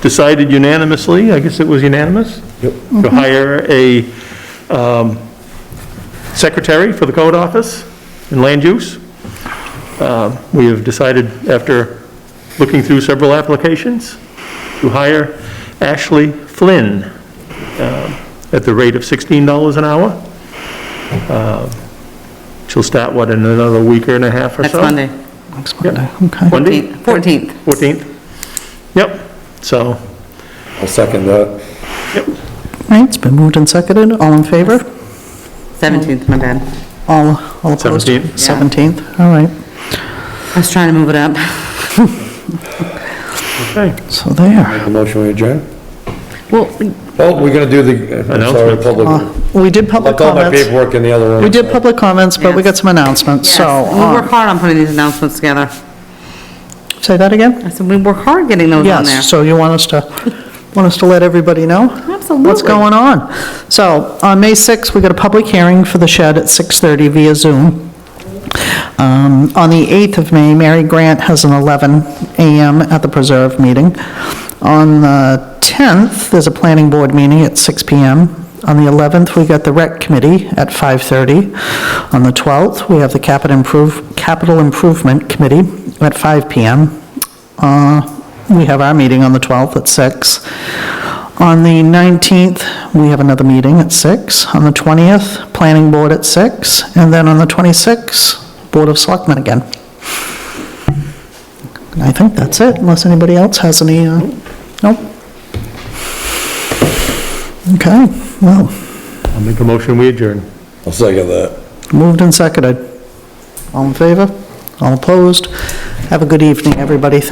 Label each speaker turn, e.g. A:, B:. A: decided unanimously, I guess it was unanimous? To hire a um, secretary for the code office in land use. Um, We have decided, after looking through several applications, to hire Ashley Flynn um, at the rate of $16 an hour. Um, She'll start, what, in another week or and a half or
B: Next
A: so?
B: Monday,
C: Next
A: Yep.
C: Monday, okay.
A: Monday?
B: 14th.
A: 14th. Yep, so,
D: I'll second that.
C: All right, it's been moved and seconded, all in favor?
B: 17th, my bad.
C: All, all opposed?
A: 17th.
B: Yeah.
C: 17th, all right.
B: I was trying to move it up.
A: okay.
C: So there.
D: The motion we adjourn?
B: Well,
D: Oh, we're gonna do the, I'm sorry,
A: Announcements.
D: public.
C: Uh, We did public
D: Left all my
C: comments.
D: paperwork in the other room.
C: We did public comments, but we
B: Yes.
C: got some announcements,
B: yes,
C: so.
B: we work
C: uh,
B: hard on putting these announcements together.
C: Say that again?
B: I said, we work hard getting those on there.
C: Yes, so you want us to, want us to let everybody know?
B: Absolutely.
C: What's going on? So, on May 6th, we got a public hearing for the shed at 6:30 via Zoom. Um, On the 8th of May, Mary Grant has an 11 a.m. at the Preserve meeting. On the 10th, there's a planning board meeting at 6 p.m. On the 11th, we got the rec committee at 5:30. On the 12th, we have the capital improve, capital improvement committee at 5 p.m. Uh, We have our meeting on the 12th at 6. On the 19th, we have another meeting at 6. On the 20th, Planning Board at 6. And then on the 26th, Board of Selectmen again. And I think that's it, unless anybody else has any, uh, nope. Okay, well,
A: I'll make a motion, we adjourn.
D: I'll second that.
C: moved and seconded. All in favor? All opposed? Have a good evening, everybody.